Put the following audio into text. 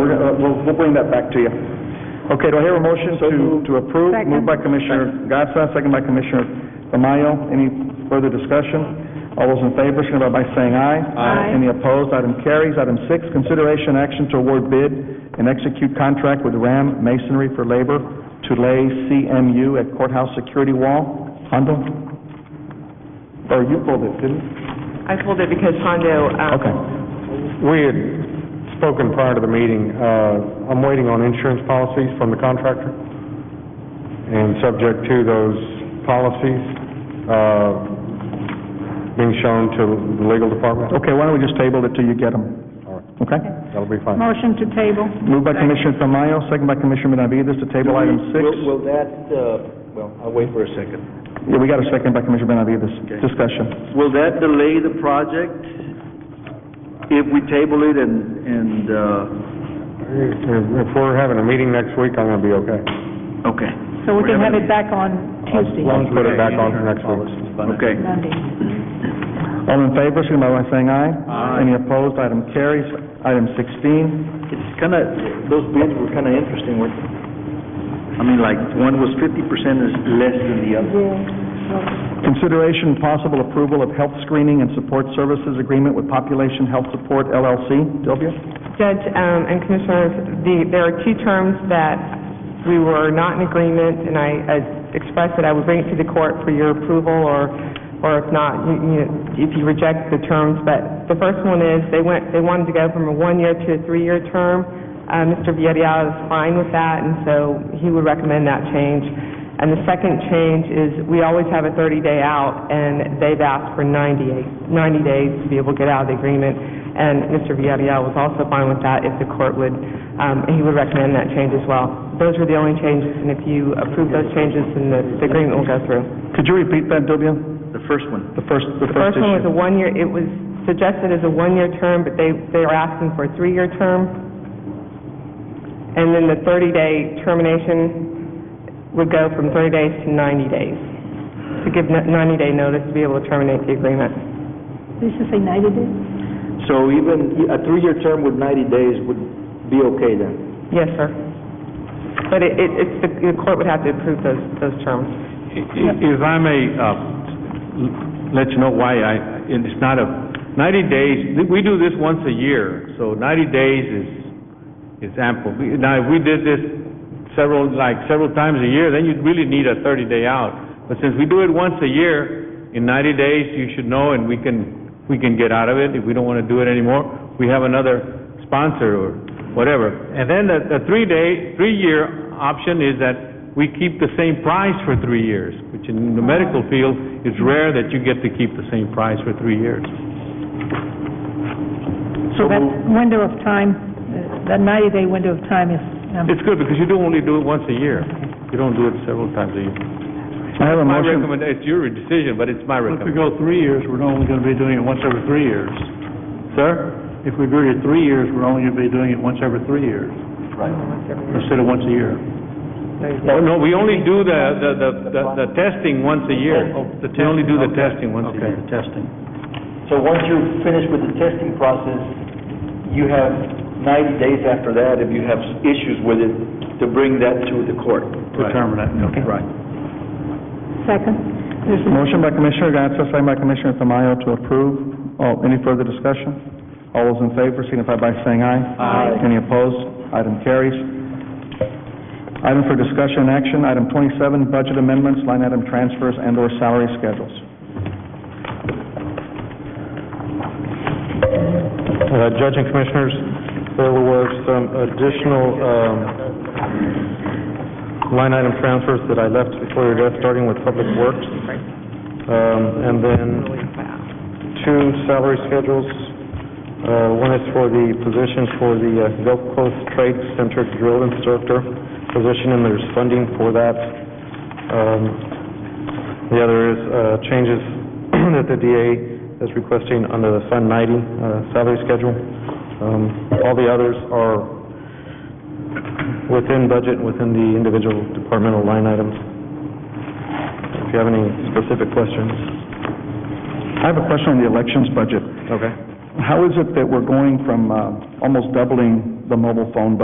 we're, uh, we'll, we'll bring that back to you. Okay, do I hear a motion to, to approve? Second. Moved by Commissioner Gatsa, second by Commissioner Tamayo. Any further discussion? All those in favor, signify by saying aye. Aye. Any opposed, item carries. Item six, consideration action to award bid and execute contract with Ram Masonry for labor to lay CMU at courthouse security wall. Hondo? Or you pulled it, didn't you? I pulled it because Hondo, um, Okay. We had spoken prior to the meeting, uh, I'm waiting on insurance policies from the contractor, and subject to those policies, uh, being shown to the legal department, Okay, why don't we just table it till you get them? All right. Okay? that'll be fine. Motion to table. Moved by Commissioner Tamayo, second by Commissioner Benavides to table item six. Will- Will that, uh, well, I'll wait for a second. Yeah, we got a second by Commissioner Benavides. Discussion. Will that delay the project if we table it and, and, uh, If if we're having a meeting next week, I'm gonna be okay. okay. So we can have it back on Tuesday, Let's put it back on for next week. Okay. Monday. All in favor, signify by saying aye. Aye. Any opposed, item carries. Item sixteen, It's kind of, those bids were kind of interesting, weren't they? I mean, like, one was fifty percent is less than the other. consideration and possible approval of health screening and support services agreement with Population Health Support LLC. Sylvia? Judge um, and Commissioners, the, there are two terms that we were not in agreement, and I I expressed that I would bring it to the court for your approval, or, or if not, you- you, if you reject the terms. But the first one is, they went, they wanted to go from a one-year to a three-year term. Uh, Mr. Villarreal is fine with that, and so he would recommend that change. And the second change is, we always have a 30-day out, and they've asked for 98, 90 days to be able to get out of the agreement. And Mr. Villarreal was also fine with that, if the court would, um, he would recommend that change as well. Those were the only changes, and if you approve those changes, then the the agreement will go through. Could you repeat that, Sylvia? The first one. The first, the The first first one was a issue. one-year, it was suggested as a one-year term, but they, they are asking for a three-year term. And then the 30-day termination would go from 30 days to 90 days, to give 90-day notice to be able to terminate the agreement. This is a ninety day? So even a three-year term with ninety days would be okay then? Yes, sir. But it, it- it's, the the court would have to approve those, those terms. If I may, uh, l- let you know why I, and it's not a, 90 days, th- we do this once a year, so 90 days is, is ample. We- Now, if we did this several, like, several times a year, then you'd really need a 30-day out. But since we do it once a year, in 90 days, you should know, and we can, we can get out of it. If we don't want to do it anymore, we have another sponsor or whatever. And then the, the three-day, three-year option is that we keep the same price for three years, which in the medical field, it's rare that you get to keep the same price for three years. So that window of time, uh, that ninety day window of time is, um, It's good because you do only do it once a year. You don't do it several times a year. I have a My motion. recommend, it's your decision, but it's my If we recommendation. go three years, we're only going to be doing it once every three years. Sir? If we go to three years, we're only going to be doing it once every three years, instead of once a year. Oh, no, we only do the, the, the- the, the testing once a year. Oh, the We only do the testing testing, okay. once a year. the testing. So once you're finished with the testing process, you have ninety days after that, if you have issues with it, to bring that to the court. Determine that, okay. Right. second. Motion by Commissioner Gatsa, second by Commissioner Tamayo to approve. Oh, any further discussion? All those in favor signify by saying aye. Aye. Any opposed? Item carries. Item for discussion and action, item twenty-seven, budget amendments, line item transfers and/or salary schedules. Uh, Judge and Commissioners, there was some additional um, line item transfers that I left before your death, starting with Public Works, um, and then two salary schedules. Uh, One is for the position for the uh, Gulf Coast Trade Center Drill Instructor position, and there's funding for that. Um, the other is uh, changes that the DA is requesting under the Fund 90 uh, salary schedule. Um, All the others are within budget, within the individual departmental line items. If you have any specific questions. I have a question on the elections budget. Okay. How is it that we're going from, uh, almost doubling the mobile phone budget